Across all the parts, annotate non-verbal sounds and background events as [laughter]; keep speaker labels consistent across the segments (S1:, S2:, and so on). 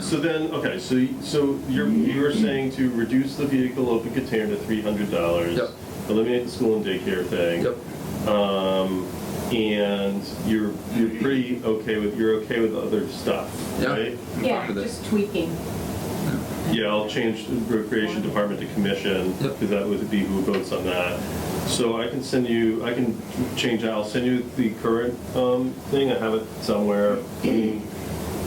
S1: So then, okay, so, y- so you're, you're saying to reduce the vehicle open container to three hundred dollars?
S2: Yep.
S1: Eliminate the school and daycare thing?
S2: Yep.
S1: Um, and you're, you're pretty okay with, you're okay with other stuff,
S2: Yeah.
S1: right?
S3: Yeah,
S2: With it.
S3: just tweaking.
S1: Yeah, I'll change the recreation department to commission,
S2: Yep.
S1: because that would be who votes on that. So I can send you, I can change, I'll send you the current, um, thing, I have it somewhere.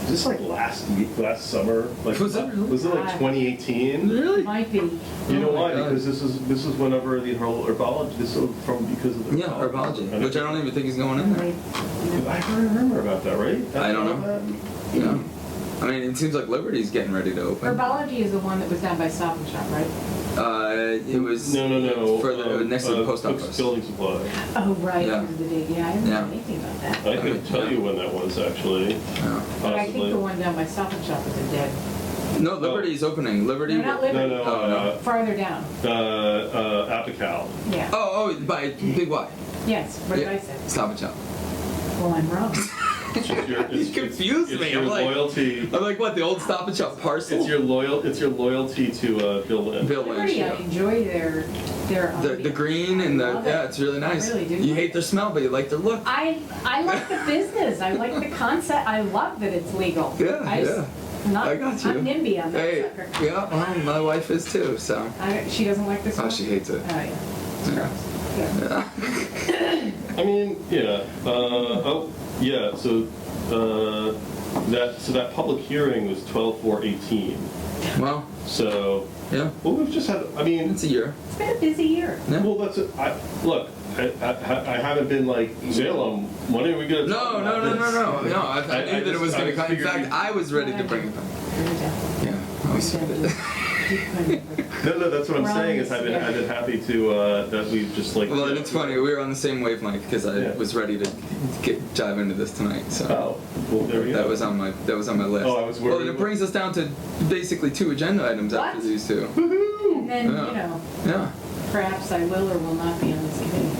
S1: Just like last week, last summer, like,
S2: Was that really?
S1: was it like twenty eighteen?
S2: Really?
S3: Might be.
S1: You know
S2: Oh my
S1: why?
S2: God.
S1: Because this is, this is whenever the her- herbology, this is from, because of the.
S2: Yeah, herbology,
S1: And
S2: which I don't even think is going in there.
S3: Right.
S1: I can't remember about that, right?
S2: I don't know.
S1: About
S2: Yeah. I mean, it seems like Liberty's getting ready to open.
S3: Herbology is the one that was done by Stop and Shop, right?
S2: Uh, it
S1: that?
S2: was
S1: No, no, no.
S2: further
S1: um,
S2: next to
S1: uh,
S2: the post
S1: Cook's
S2: office.
S1: Building supply.
S3: Oh, right,
S2: Yeah.
S3: because of the date, yeah, I didn't
S2: Yeah.
S3: know anything about that.
S1: I could tell you when that was, actually.
S2: Yeah.
S3: But I
S1: Possibly.
S3: think the one down by Stop and Shop is a dead,
S2: oh. No, Liberty's opening. Liberty.
S3: No, not Liberty.
S1: No, no, uh,
S3: farther down,
S1: uh, uh, Apical.
S3: yeah.
S2: Oh, oh, by Big Y.
S3: Yes, what did
S2: Yeah.
S3: I say?
S2: Stop and Shop.
S3: Well, I'm
S2: [laughs]
S3: wrong.
S1: It's just your-
S2: You
S1: it's-
S2: confused
S1: it's
S2: me.
S1: your
S2: I'm like-
S1: loyalty.
S2: I'm like, what? The old Stop and Shop parcel.
S1: It's your loyal. It's your loyalty to uh, Bill Lynch.
S2: Bill Lynch.
S3: Liberty, I
S2: Yeah.
S3: enjoy their, their. um,
S2: The, the green and
S3: I
S2: the
S3: love it.
S2: yeah, it's really
S3: I
S2: nice.
S3: really do
S2: you
S3: love
S2: hate
S3: it.
S2: their smell, but you like their look.
S3: I, I like the business, I like the concept, I love that it's legal.
S2: Yeah,
S3: I just- Not,
S2: I got you.
S3: I'm NIMBY on
S2: Hey,
S3: that sucker.
S2: yeah, well, my wife is too. So.
S3: I, she doesn't like this
S2: Oh,
S3: one?
S2: she hates it.
S3: Oh, yeah. It's
S2: Yeah.
S3: gross. Yeah.
S2: Yeah.
S1: I mean, yeah. Uh, oh, yeah. So uh, that so that public hearing was twelve four eighteen.
S2: Well,
S1: So
S2: yeah,
S1: well, we've just had. I mean,
S2: it's a year.
S3: It's been a busy year.
S2: Yeah.
S1: well, that's. A, I look. I, I, I haven't been like Salem. When are we gonna? talk
S2: No,
S1: about
S2: no, no, no,
S1: this?"
S2: no, no. I, I,
S1: I-
S2: knew
S1: I
S2: that it
S1: just-
S2: was
S1: I
S2: going to
S1: just
S2: come. In
S1: figured
S2: fact,
S1: you-
S2: I was ready to bring it back.
S3: Very definitely.
S2: Yeah, I was
S3: Very definitely.
S1: No, no, that's what I'm
S3: We're on
S1: saying. Is
S3: this,
S1: I've been,
S3: yeah.
S1: I've been happy to uh, that we've just like.
S2: Well, and it's funny. We were on the same wavelength because I
S1: Yeah.
S2: was ready to get dive into this tonight. So
S1: Oh, well, there we go.
S2: that was on my that was on my list.
S1: Oh, I was
S2: Well, and
S1: worried.
S2: it brings us down to basically two agenda items after
S3: What?
S2: these two.
S3: [laughs]
S1: [laughs]
S3: And then, you
S2: Yeah.
S3: know,
S2: Yeah.
S3: perhaps I will or will not be on this committee.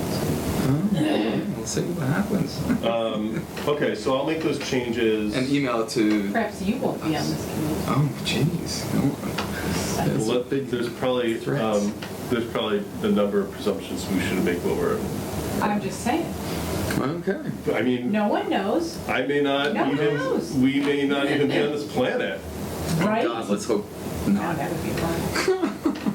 S2: Oh, we'll see what happens.
S1: Um, okay, so I'll make those changes.
S2: An email to.
S3: Perhaps you won't be on this committee.
S2: Oh, jeez.
S3: So-
S2: Yes.
S1: Let- There's probably,
S2: Threats.
S1: um, there's probably a number of presumptions we should make over.
S3: I'm just saying,
S2: Okay.
S1: I mean,
S3: no one knows,
S1: I may not
S3: No one knows.
S1: even, we may not even be on this planet.
S3: right?
S2: God,
S3: No,
S2: let's hope not.
S3: that would be fun.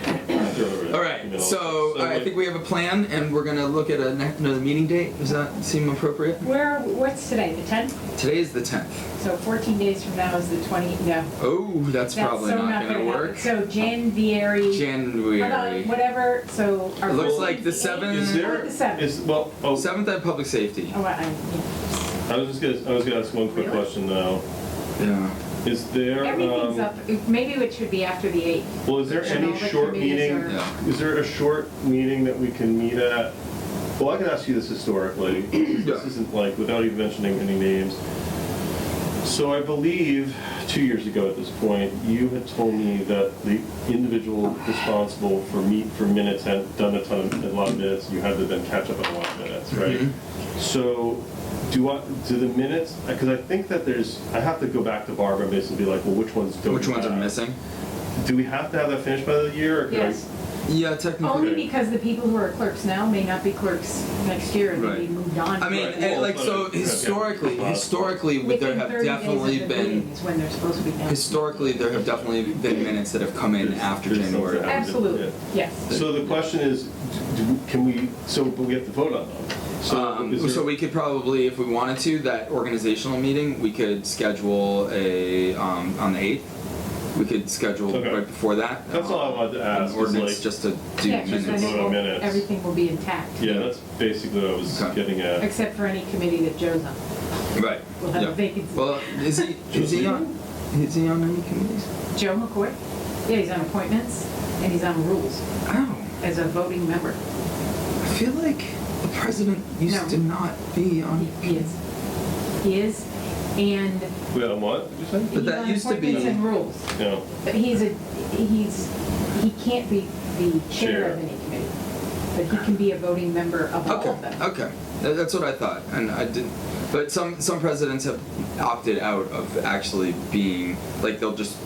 S2: All right, so I think we have a plan, and we're gonna look at a ne- another meeting date. Does that seem appropriate?
S3: Where, what's today, the 10th?
S2: Today is the tenth.
S3: So 14 days from now is the 20, no.
S2: Oh, that's,
S3: That's
S2: probably
S3: so
S2: not,
S3: not
S2: gonna,
S3: gonna happen.
S2: work.
S3: So Jan Vieri,
S2: January.
S3: about whatever, so our
S2: It looks
S3: first
S2: like
S3: meeting
S2: the
S3: is
S2: seventh-
S1: Is
S3: Or
S1: there,
S3: the seventh.
S1: is, well, oh,
S2: Seventh at public safety.
S3: Oh, I, yeah.
S1: I was just gonna, I was gonna ask one quick
S3: Really?
S1: question though.
S2: Yeah.
S1: Is there,
S3: Everything's
S1: um,
S3: up, maybe it should be after the 8th.
S1: well, is there
S3: Should all
S1: any
S3: the
S1: short
S3: committees
S1: meeting?
S3: are-
S2: Yeah.
S1: Is there a short meeting that we can meet at? Well, I can ask you this historically. This
S2: [clears throat] Yeah.
S1: isn't like, without even mentioning any names. So I believe, two years ago at this point, you had told me that the individual responsible for meet, for minutes had done a ton, of- a lot of minutes, you had to then catch up on a lot of minutes, right?
S2: Mm-hmm.
S1: So, do I, do the minutes, because I think that there's, I have to go back to Barbara and basically be like, well, which ones don't
S2: Which
S1: we
S2: ones are
S1: have?
S2: missing?
S1: Do we have to have that finished by the year, or could I-
S3: Yes,
S2: Yeah, technically.
S3: only because the people who are clerks now may not be clerks next year and
S2: Right.
S3: they'll be moved on.
S2: I mean,
S1: Right,
S2: and
S1: well,
S2: like
S1: but-
S2: so
S1: okay.
S2: historically,
S1: Well,
S2: historically, would there
S3: Within
S2: have
S3: 30 days of
S2: definitely
S3: the meeting
S2: been
S3: is when they're supposed to be done.
S2: historically there have definitely been minutes that have come in
S1: There's-
S2: after
S1: there's
S2: January.
S1: something.
S3: Absolutely,
S1: Yeah.
S3: yes.
S1: So the question is, d- do- can we, so but we have to vote on them.
S2: Um,
S1: is there-
S2: so we could probably, if we wanted to, that organizational meeting, we could schedule a, um, on the eighth. We could schedule
S1: Okay.
S2: right before that.
S1: That's all I wanted to
S2: um,
S1: ask, is
S2: Ordinance
S1: like-
S2: just to do
S3: Yeah, just
S2: minutes.
S3: then it
S1: Vote on
S3: will-
S1: minutes.
S3: everything will be intact,
S1: Yeah, that's basically what I was
S2: Okay.
S1: getting at.
S3: except for any committee that Joe's on.
S2: Right.
S3: We'll have a
S2: yeah.
S3: vacancy.
S2: Well,
S1: [laughs]
S2: is he, is he on, is he on any committees?
S3: Joe McCoy, yeah, he's on appointments and he's on rules
S2: Ow,
S3: as a voting member.
S2: I feel like the president used
S3: No.
S2: to not be on.
S3: He- He is, he is, and
S1: Wait, on what, did you say?
S2: But
S3: he's
S2: that
S3: on
S2: used to be-
S3: appointments and rules.
S1: No.
S3: But he's a, he's, he can't be the chair
S1: Chair.
S3: of any committee, but he can be a voting member of all
S2: Okay,
S3: of them.
S2: okay, That- that's what I thought, and I didn't, But some some presidents have opted out of actually being like they'll just